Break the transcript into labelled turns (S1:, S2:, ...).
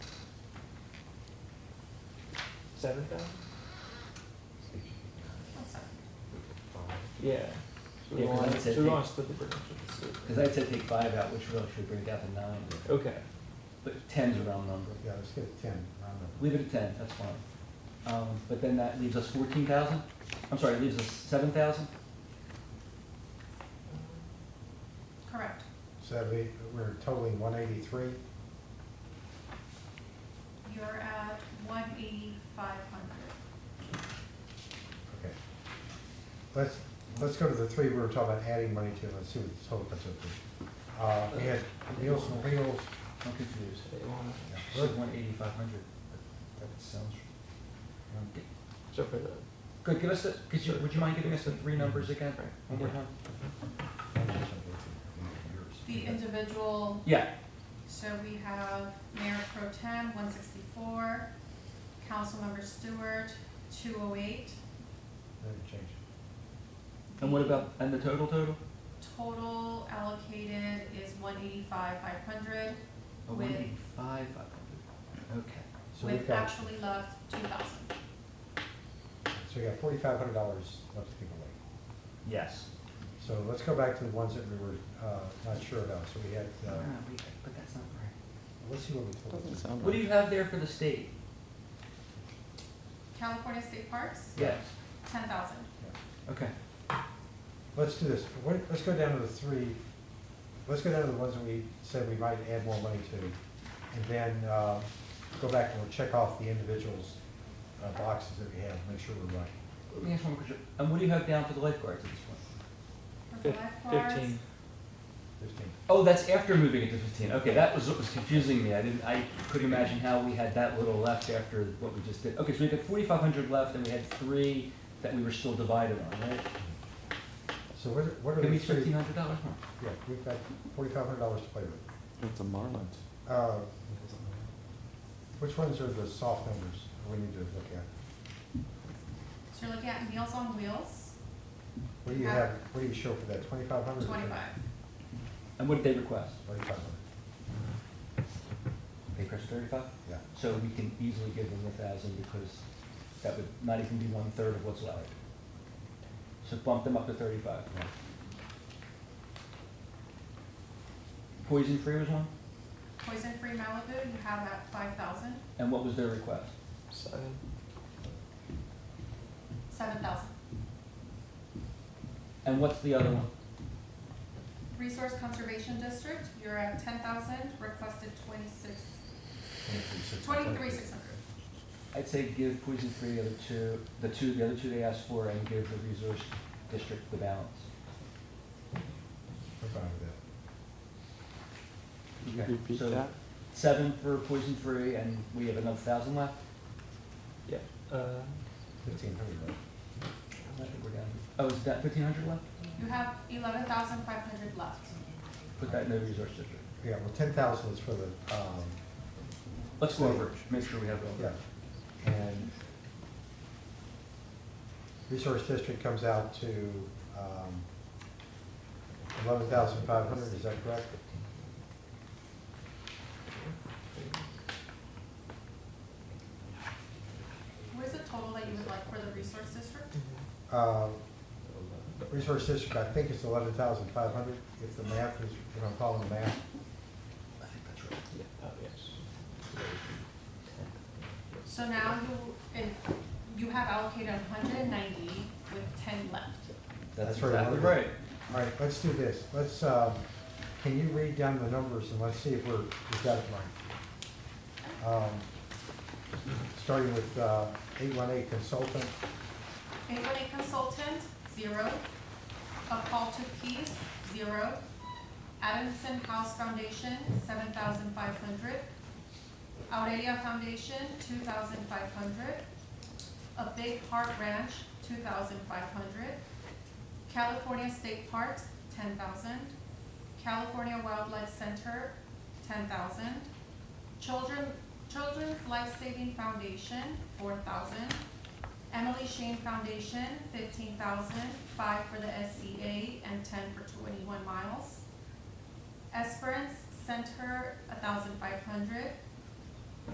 S1: Seven thousand? Yeah. So we
S2: Yeah, 'cause
S1: wanna,
S2: I said
S1: so we
S2: they-
S1: wanna split the difference with the city.
S2: Because I said take five out, which really should bring it down to nine,
S1: Okay,
S2: but ten's a round number.
S3: Yeah, let's get a ten, round number.
S2: Leave it at ten, that's fine. Um, but then that leaves us fourteen thousand, I'm sorry, leaves us seven thousand?
S4: Correct.
S3: So that'd be, we're totaling one eighty-three,
S4: You're at one eighty-five hundred.
S3: okay. Let's, let's go to the three we were talking about adding money to, let's see what the total comes up to. Uh, we had Meals on Wheels,
S2: I'm confused.
S1: so they wanna,
S3: yeah,
S2: She
S3: we're-
S2: said one eighty-five hundred, that sounds. okay.
S1: so for the,
S2: Good, give us the, could you, would you mind giving us the three numbers again,
S1: Right.
S2: one more time?
S4: The individual,
S2: Yeah,
S4: so we have Mayor Pro Tem, one sixty-four, Councilmember Stewart, two oh eight.
S3: Let me change it.
S2: and what about, and the total total?
S4: Total allocated is one eighty-five, five hundred,
S2: Oh,
S4: With-
S2: 185, 500. okay.
S3: So we've
S4: with
S3: got,
S4: actually left two thousand.
S3: so we got forty-five hundred dollars left to give away.
S2: Yes.
S3: So let's go back to the ones that we were, uh, not sure about, so we had, uh,
S2: Ah, wait, But that's not right.
S3: let's see what we totaled.
S5: Doesn't sound
S2: What
S5: right.
S2: do you have there for the state?
S4: California State Parks,
S2: Yes.
S4: ten thousand.
S2: Okay,
S3: Let's do this, what, let's go down to the three, let's go down to the ones that we said we might add more money to, and then, uh, go back and we'll check off the individuals, uh, boxes that we have, make sure we're right.
S2: let me ask one more question, and what do you have down for the lifeguards at this point?
S4: For
S1: fif-
S4: lifeguards,
S1: fifteen,
S3: Fifteen.
S2: Oh, that's after moving it to fifteen, okay, that was what was confusing me, I didn't, I couldn't imagine how we had that little left after what we just did. Okay, so we got forty-five hundred left, and we had three that we were still divided on, right?
S3: So what, are- what are
S2: Give me
S3: the three?
S2: fifteen hundred dollars more.
S3: Yeah, we've got forty-five hundred dollars to play with.
S5: It's a marlin.
S3: Uh, which ones are the soft numbers we need to look at?
S4: so you're looking at Meals on Wheels,
S3: What do you have, what do you show for that, twenty-five hundred?
S4: twenty-five.
S2: And what did they request?
S3: Twenty-five hundred,
S2: They requested thirty-five?
S3: yeah.
S2: So we can easily give them a thousand because that would not even be one-third of what's left. So bump them up to thirty-five.
S3: Yeah.
S2: Poison-free was one,
S4: Poison Free Malibu, you have at five thousand,
S2: and what was their request?
S1: seven,
S4: seven thousand.
S2: And what's the other one?
S4: Resource Conservation District, you're at ten thousand, requested twenty-six, twenty-three six hundred.
S2: I'd say give poison-free the other two, the two, the other two they asked for, and give the resource district the balance.
S3: We're fine with that.
S5: Could you
S2: Okay,
S5: repeat
S2: so
S5: that?
S2: Seven for poison-free, and we have another thousand left?
S1: yeah, uh,
S3: Fifteen hundred, right?
S2: I think we're down. Oh, is that fifteen hundred left?
S4: You have eleven thousand five hundred left.
S2: Put that in the resource district.
S3: Yeah, well, ten thousand is for the, um,
S2: Let's go over it, make sure we have it all.
S3: yeah, and resource district comes out to, um, eleven thousand five hundred, is that correct?
S4: What is the total that you would like for the Resource District?
S1: mm-hmm,
S3: Uh, resource district, I think it's eleven thousand five hundred, if the math is, if I'm following the math.
S2: I think that's right.
S1: yeah, oh, yes.
S4: So now you, and you have allocated hundred and ninety with ten left.
S2: That's
S3: That's right.
S2: exactly right.
S3: All right, let's do this, let's, um, can you read down the numbers and let's see if we're, we've got it right? Um, Starting with, uh, eight one eight consultant,
S4: Anybody consultant, zero. A call to peace, zero. Adamson House Foundation, seven thousand five hundred. Aurelia Foundation, two thousand five hundred. A Big Heart Ranch, two thousand five hundred. California State Parks, ten thousand. California Wildlife Center, ten thousand. Children, Children's Life Saving Foundation, four thousand. Emily Shane Foundation, fifteen thousand, five for the SCA and ten for twenty-one miles. Esperance Center, a thousand five hundred.